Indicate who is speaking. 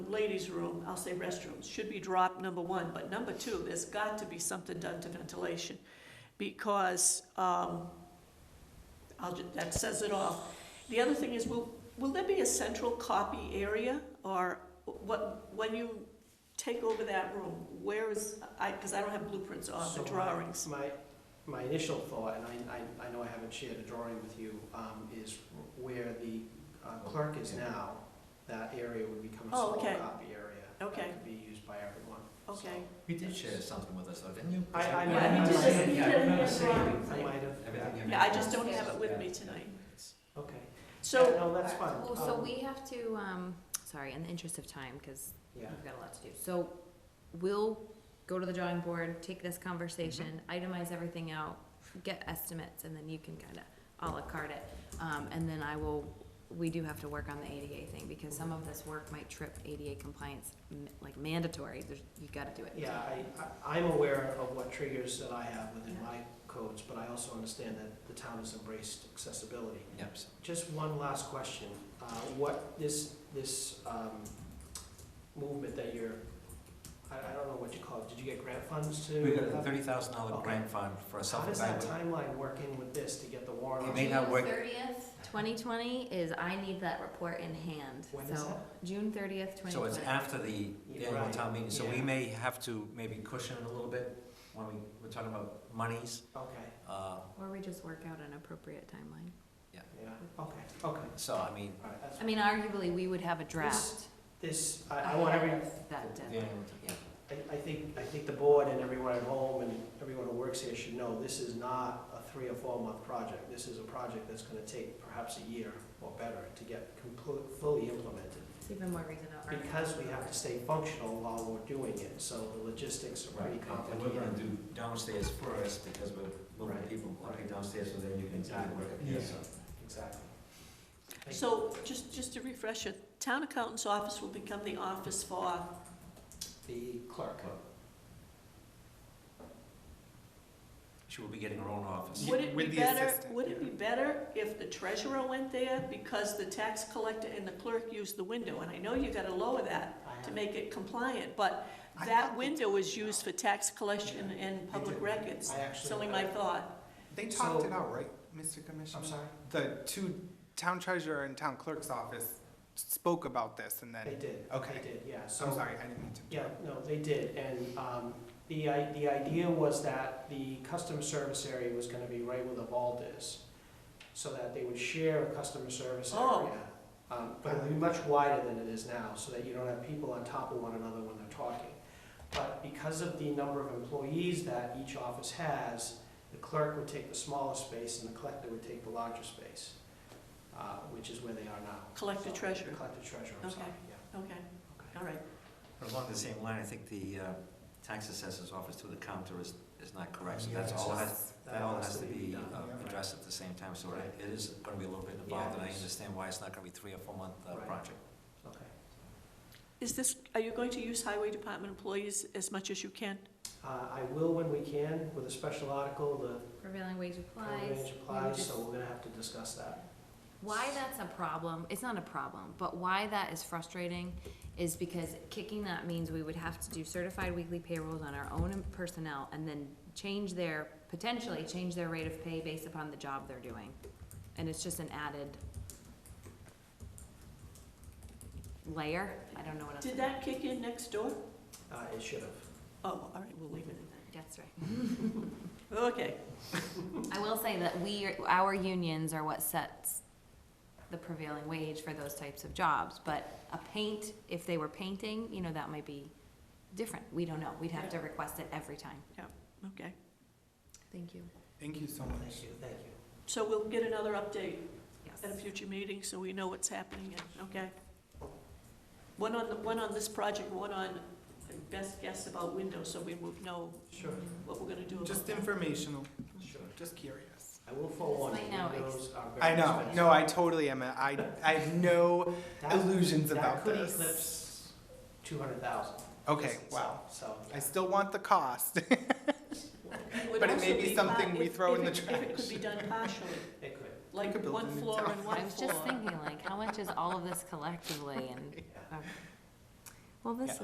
Speaker 1: ladies' room, I'll say restrooms, should be dropped, number one. But number two, there's got to be something done to ventilation, because, um, I'll, ju- that says it all. The other thing is, will, will there be a central copy area, or what, when you take over that room, where is, I, because I don't have blueprints or
Speaker 2: So
Speaker 1: the
Speaker 2: my-
Speaker 1: drawings.
Speaker 2: My, my initial thought, and I, I, I know I haven't shared a drawing with you, um, is where the uh,
Speaker 3: Oh,
Speaker 2: clerk is now, that area would become a
Speaker 1: Oh,
Speaker 2: small
Speaker 1: okay.
Speaker 2: copy area.
Speaker 1: Okay.
Speaker 2: That could be used by everyone.
Speaker 1: Okay.
Speaker 3: You did share something with us, though, didn't you?
Speaker 2: I, I.
Speaker 1: Yeah, he
Speaker 2: might- I
Speaker 1: did-
Speaker 2: might have-
Speaker 1: he
Speaker 2: yeah, I
Speaker 1: did
Speaker 2: remember
Speaker 1: have
Speaker 2: seeing it.
Speaker 1: drawings.
Speaker 2: I might have,
Speaker 3: Everything you
Speaker 1: Yeah, I
Speaker 3: mentioned.
Speaker 1: just don't have it with me tonight.
Speaker 2: okay. Yeah,
Speaker 1: So,
Speaker 2: No, that's fine.
Speaker 4: Oh, so
Speaker 2: Um,
Speaker 4: we have to, um, sorry, in the interest of time, because
Speaker 2: Yeah,
Speaker 4: we've got a lot to do. So we'll go to the drawing board, take this conversation,
Speaker 2: Mm-hmm.
Speaker 4: itemize everything out, get estimates, and then you can kind of à la carte it. Um, and then I will, we do have to work on the ADA thing, because some of this work might trip ADA compliance, m- like mandatory, there's, you gotta do it.
Speaker 2: yeah, I, I- I'm aware of what triggers that I have within
Speaker 4: Yeah.
Speaker 2: my codes, but I also understand that the town has embraced accessibility.
Speaker 3: Yep, so
Speaker 2: Just one last question. Uh, What, this, this um, movement that you're, I I don't know what you call it, did you get grant funds to?
Speaker 3: we got a thirty thousand dollar
Speaker 2: Okay.
Speaker 3: grant fund for a
Speaker 2: How
Speaker 3: self
Speaker 2: does that
Speaker 3: evaluation.
Speaker 2: timeline work in with this to get the warrant?
Speaker 3: It may not work.
Speaker 4: Thirtieth? Twenty twenty is, I need that report in hand,
Speaker 2: When is
Speaker 4: so, June thirtieth, twenty
Speaker 3: So
Speaker 4: twenty.
Speaker 3: it's after the the annual
Speaker 2: Right,
Speaker 3: town meeting, so we
Speaker 2: yeah.
Speaker 3: may have to maybe cushion it a little bit when we, we're talking about monies.
Speaker 2: Okay,
Speaker 3: Uh,
Speaker 4: Or we just work out an appropriate timeline.
Speaker 2: yeah, okay, okay. All
Speaker 3: so, I mean,
Speaker 2: right, that's,
Speaker 4: I mean, arguably, we would have a draft.
Speaker 2: this, I I want every,
Speaker 4: ahead of That
Speaker 3: the
Speaker 4: deadline.
Speaker 3: annual, yeah.
Speaker 2: I I think, I think the board and everyone at home and everyone who works here should know, this is not a three or four month project. This is a project that's gonna take perhaps a year or better to get complete, fully implemented.
Speaker 4: It's even more reason to argue.
Speaker 2: because we have to stay functional while we're doing it, so the logistics are pretty
Speaker 3: Right, and we're
Speaker 2: complicated.
Speaker 3: gonna do downstairs first, because we're moving
Speaker 2: Right,
Speaker 3: people, like
Speaker 2: right.
Speaker 3: downstairs, so then you can do the work up here,
Speaker 2: Yeah.
Speaker 3: so.
Speaker 2: Exactly. Thank
Speaker 1: so just, just to refresh it, town accountant's office will become the office for,
Speaker 2: you. The clerk.
Speaker 3: She will be getting her own office.
Speaker 1: would it be
Speaker 5: With the
Speaker 1: better,
Speaker 5: assistant,
Speaker 1: would it
Speaker 2: yeah.
Speaker 1: be better if the treasurer went there? Because the tax collector and the clerk used the window, and I know you gotta lower that
Speaker 2: I
Speaker 1: to
Speaker 2: have-
Speaker 1: make it compliant, but
Speaker 2: I
Speaker 1: that
Speaker 2: thought
Speaker 1: window is used for tax collection and public
Speaker 2: do.
Speaker 1: records.
Speaker 2: I
Speaker 1: It's
Speaker 2: actually.
Speaker 1: only my thought.
Speaker 5: They
Speaker 2: So-
Speaker 5: talked it out, right, Mr. Commissioner?
Speaker 2: I'm sorry,
Speaker 5: The two, town treasurer and town clerk's office spoke about this and
Speaker 2: they
Speaker 5: then,
Speaker 2: did,
Speaker 5: Okay.
Speaker 2: they did, yeah, so.
Speaker 5: I'm sorry, I didn't mean to.
Speaker 2: Yeah, no, they did, and, um, the, i- the idea was that the customer service area was gonna be right where the vault is, so that they would share a customer service
Speaker 1: Oh.
Speaker 2: area. Um, but it'll be much wider than it is now, so that you don't have people on top of one another when they're talking. But because of the number of employees that each office has, the clerk would take the smaller space and the collector would take the larger space, uh, which is where they are now.
Speaker 1: Collector
Speaker 2: So,
Speaker 1: treasurer.
Speaker 2: Collector treasurer, I'm sorry,
Speaker 1: Okay.
Speaker 2: yeah.
Speaker 1: Okay, all right.
Speaker 3: But along the same line, I think the uh, tax assessor's office to the counter is, is not correct, so that's all, has- that all has to be
Speaker 2: done.
Speaker 3: uh,
Speaker 5: yeah.
Speaker 3: addressed at the same time, so it- it is gonna be a little bit
Speaker 2: Yeah,
Speaker 3: involved, and I
Speaker 2: it's-
Speaker 3: understand why it's not gonna be three or four month uh,
Speaker 2: Right.
Speaker 3: project.
Speaker 2: Okay.
Speaker 1: Is this, are you going to use highway department employees as much as you can?
Speaker 2: Uh, I will when we can with a special article, the
Speaker 4: Prevailing wage applies.
Speaker 2: range
Speaker 4: we would
Speaker 2: applies,
Speaker 4: just-
Speaker 2: so we're gonna have to discuss that.
Speaker 4: Why that's a problem, it's not a problem, but why that is frustrating is because kicking that means we would have to do certified weekly payrolls on our own personnel and then change their, potentially change their rate of pay based upon the job they're doing. And it's just an added layer, I don't know what else.
Speaker 1: Did that kick in next door?
Speaker 2: Uh, it should have.
Speaker 1: Oh, all right, we'll leave it at
Speaker 4: That's right.
Speaker 1: that. Okay,
Speaker 4: I will say that we, are- our unions are what sets the prevailing wage for those types of jobs, but a paint, if they were painting, you know, that might be different, we don't know, we'd have to request it every time.
Speaker 1: okay.
Speaker 4: Thank you.
Speaker 5: Thank you so much.
Speaker 2: Thank you, thank you.
Speaker 1: So we'll get another update at a
Speaker 4: Yes,
Speaker 1: future meeting, so we know what's happening, and- okay? One on, the one on this project, one on best guess about windows, so we will know
Speaker 2: Sure,
Speaker 1: what we're gonna do about that.
Speaker 5: Just informational,
Speaker 2: sure.
Speaker 5: just curious.
Speaker 2: I will forewarn
Speaker 4: This
Speaker 2: you,
Speaker 4: might now
Speaker 2: windows are very
Speaker 5: I know,
Speaker 2: expensive.
Speaker 5: no, I totally am, a- I, I have no
Speaker 2: That-
Speaker 5: illusions
Speaker 2: That
Speaker 5: about
Speaker 2: could
Speaker 5: this.
Speaker 2: eclipse two hundred thousand.
Speaker 5: Okay, wow,
Speaker 2: So,
Speaker 5: I still want the cost.
Speaker 1: would
Speaker 5: but it
Speaker 1: also
Speaker 5: may be
Speaker 1: be par-
Speaker 5: something we
Speaker 1: if-
Speaker 5: throw
Speaker 1: if
Speaker 5: in the
Speaker 1: it- If it could be done partially,
Speaker 2: it could,
Speaker 1: like
Speaker 5: could build a
Speaker 1: one
Speaker 5: new
Speaker 1: floor
Speaker 5: tower.
Speaker 1: and
Speaker 4: I
Speaker 1: one
Speaker 4: was just
Speaker 1: floor.
Speaker 4: thinking, like, how much is all of this collectively, and
Speaker 2: yeah.
Speaker 4: Well, this
Speaker 5: Yeah.
Speaker 4: is.